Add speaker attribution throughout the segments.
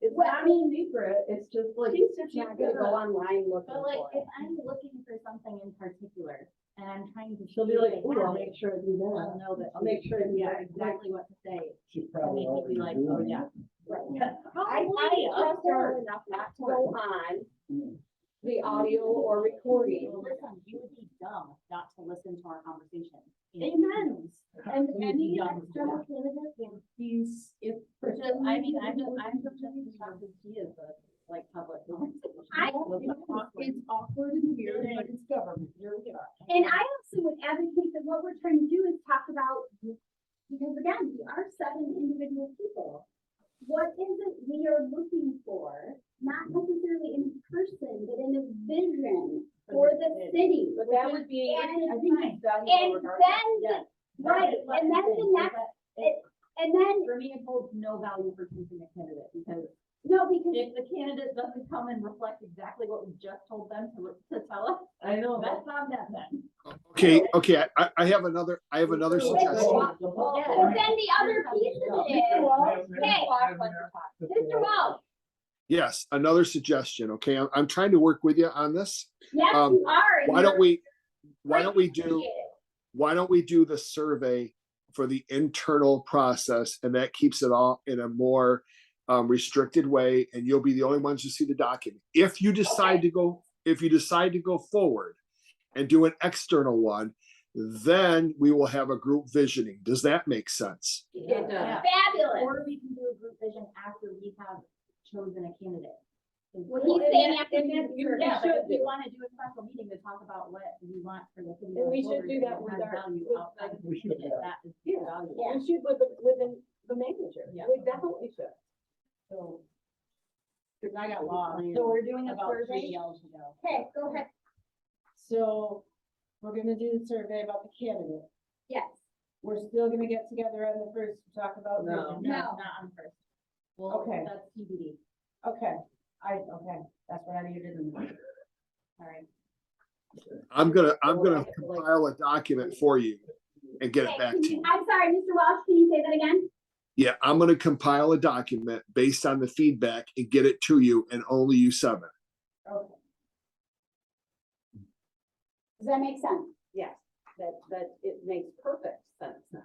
Speaker 1: it's not a secret, it's just like,
Speaker 2: She said
Speaker 1: she's
Speaker 2: she's
Speaker 1: gonna go
Speaker 2: gonna.
Speaker 1: online looking
Speaker 2: But like,
Speaker 1: for
Speaker 2: if
Speaker 1: it.
Speaker 2: I'm looking for something in particular and I'm trying to.
Speaker 1: She'll be
Speaker 2: see
Speaker 1: like,
Speaker 2: if I
Speaker 1: ooh, I'll
Speaker 2: have
Speaker 1: make
Speaker 2: it,
Speaker 1: sure I do
Speaker 2: I'll
Speaker 1: that.
Speaker 2: know that,
Speaker 1: I'll make sure I do
Speaker 2: yeah,
Speaker 1: that.
Speaker 2: exactly what to say.
Speaker 3: She's probably
Speaker 2: Make me
Speaker 3: already
Speaker 2: be like, oh,
Speaker 3: doing it.
Speaker 2: yeah.
Speaker 1: Right. I
Speaker 2: I
Speaker 1: wouldn't trust her
Speaker 2: observe
Speaker 1: enough not
Speaker 2: that
Speaker 1: to
Speaker 2: part.
Speaker 1: go on
Speaker 3: Mm.
Speaker 1: the audio or recording.
Speaker 2: Listen, you would be dumb not to listen to our conversation.
Speaker 1: Amen.
Speaker 4: And
Speaker 2: You'd be
Speaker 4: any
Speaker 2: dumb to do
Speaker 4: external candidate would these, if.
Speaker 2: Which is, I mean, I'm just, I'm just shocked that he is a, like, public.
Speaker 4: I- It's awkward and weird, but it's government, here we are.
Speaker 5: And I also would advocate that what we're trying to do is talk about, because again, we are seven individual people. What is it we are looking for, not necessarily in person, but in a vision for the city?
Speaker 1: But that would be,
Speaker 5: And-
Speaker 1: I think it's done
Speaker 5: And
Speaker 1: regardless.
Speaker 5: then, the- right, and then the next, and then,
Speaker 2: For me, it holds no value for choosing a candidate, because
Speaker 5: no, because,
Speaker 2: if the candidate doesn't come and reflect exactly what we just told them to, to tell us,
Speaker 1: I know, that's
Speaker 2: that's on them then.
Speaker 6: Okay, okay, I, I have another, I have another
Speaker 3: Well,
Speaker 6: suggestion.
Speaker 3: that's the whole
Speaker 2: Yeah.
Speaker 5: but
Speaker 3: point.
Speaker 5: then the other piece of it is, hey, Mr. Wells,
Speaker 6: Yes, another suggestion, okay? I'm, I'm trying to work with you on this.
Speaker 5: yes,
Speaker 6: Um,
Speaker 5: you are. and
Speaker 6: Why don't
Speaker 5: you're
Speaker 6: we, why don't we
Speaker 5: great.
Speaker 6: do, why don't we do the survey for the internal process and that keeps it all in a more um, restricted way and you'll be the only ones who see the document. If you decide to go, if you decide to go forward and do an external one, then we will have a group visioning. Does that make sense?
Speaker 1: It does.
Speaker 5: Fabulous.
Speaker 2: Or we can do a group vision after we have chosen a candidate.
Speaker 5: Well, he's saying after
Speaker 1: and
Speaker 5: you
Speaker 1: that's- you
Speaker 2: Yeah,
Speaker 1: should
Speaker 2: but if we
Speaker 1: do.
Speaker 2: wanna do a special meeting to talk about what we want for the city.
Speaker 1: And we should
Speaker 2: going
Speaker 1: do
Speaker 2: forward, it
Speaker 1: that with
Speaker 2: has
Speaker 1: our-
Speaker 2: value
Speaker 1: with,
Speaker 2: outside
Speaker 1: like,
Speaker 2: of the
Speaker 3: We should
Speaker 2: candidate.
Speaker 3: do
Speaker 2: That is
Speaker 1: Yeah.
Speaker 2: valuable.
Speaker 1: We should with, the- with the, the manager.
Speaker 2: Yeah.
Speaker 1: We definitely should.
Speaker 2: So,
Speaker 4: Cause I
Speaker 2: got
Speaker 4: got lost.
Speaker 2: lost
Speaker 4: So we're
Speaker 2: doing a
Speaker 4: doing a
Speaker 2: about three
Speaker 4: survey.
Speaker 2: years ago.
Speaker 5: Okay, go ahead,
Speaker 4: So we're gonna do the survey about the candidate.
Speaker 5: yes.
Speaker 4: We're still gonna get together on the first to talk about.
Speaker 1: No.
Speaker 4: vision.
Speaker 5: No.
Speaker 2: Not on first. Well,
Speaker 4: Okay.
Speaker 2: that's TBD,
Speaker 4: Okay, I, okay, that's what I needed in the.
Speaker 2: sorry.
Speaker 6: I'm gonna, I'm gonna compile a document for you and get
Speaker 5: Okay,
Speaker 6: it back
Speaker 5: can
Speaker 6: to
Speaker 5: you-
Speaker 6: you.
Speaker 5: I'm sorry, Mr. Welch, can you say that again?
Speaker 6: Yeah, I'm gonna compile a document based on the feedback and get it to you and only you seven.
Speaker 4: Okay,
Speaker 5: Does that make sense?
Speaker 1: Yes, that, that, it makes perfect sense now.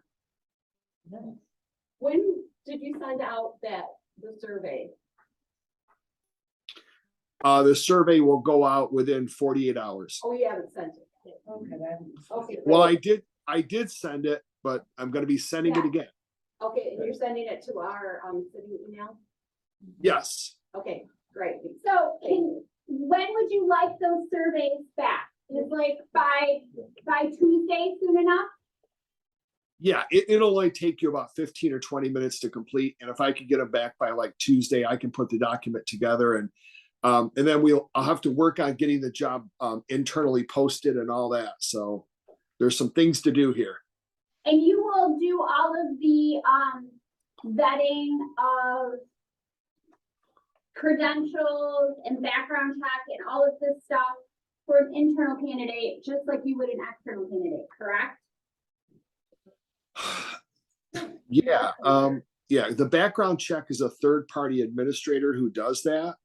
Speaker 1: When did you send out that, the survey?
Speaker 6: Uh, the survey will go out within forty-eight hours.
Speaker 1: Oh, you haven't sent it.
Speaker 4: okay, then.
Speaker 1: Okay.
Speaker 6: Well, I did, I did send it, but I'm gonna be sending it
Speaker 1: Yeah.
Speaker 6: again.
Speaker 1: Okay, and you're sending it to our, um, city email?
Speaker 6: Yes,
Speaker 1: Okay, great.
Speaker 5: So can, when would you like those surveys back? Is like by, by Tuesday soon enough?
Speaker 6: yeah, it, it'll only take you about fifteen or twenty minutes to complete, and if I could get them back by like Tuesday, I can put the document together and um, and then we'll, I'll have to work on getting the job um, internally posted and all that, so there's some things to do here.
Speaker 5: And you will do all of the, um, vetting of credentials and background check and all of this stuff for an internal candidate, just like you would an external candidate, correct?
Speaker 6: Yeah, um, yeah, the background check is a third party administrator who does that.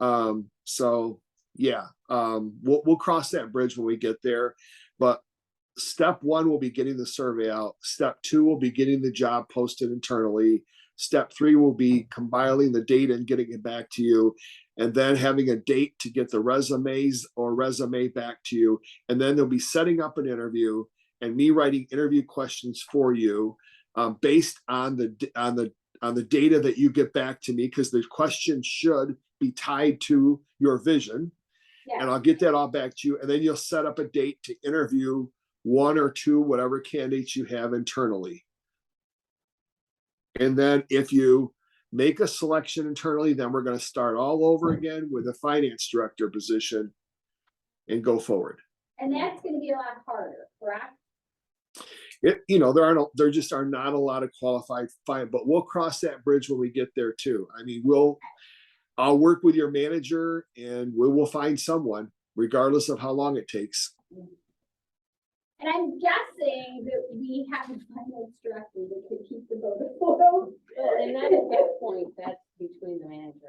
Speaker 6: Um, so, yeah, um, we'll, we'll cross that bridge when we get there. But step one will be getting the survey out. Step two will be getting the job posted internally. Step three will be compiling the data and getting it back to you. And then having a date to get the resumes or resume back to you. And then they'll be setting up an interview and me writing interview questions for you um, based on the d- on the on the data that you get back to me because the question should be tied to your vision and i'll get that all back to you and then you'll set up a date to interview one or two whatever candidates you have internally and then if you make a selection internally then we're going to start all over again with a finance director position and go forward
Speaker 5: And that's gonna be a lot harder, correct?
Speaker 6: it, you know, there aren't, a- there just are not a lot of qualified fine, but we'll cross that bridge when we get there too. I mean, we'll, I'll work with your manager and we will find someone regardless of how long it takes.
Speaker 5: And I'm guessing that we have a finance director that could keep the voter photo.
Speaker 1: Well, and then at that point, that's between the manager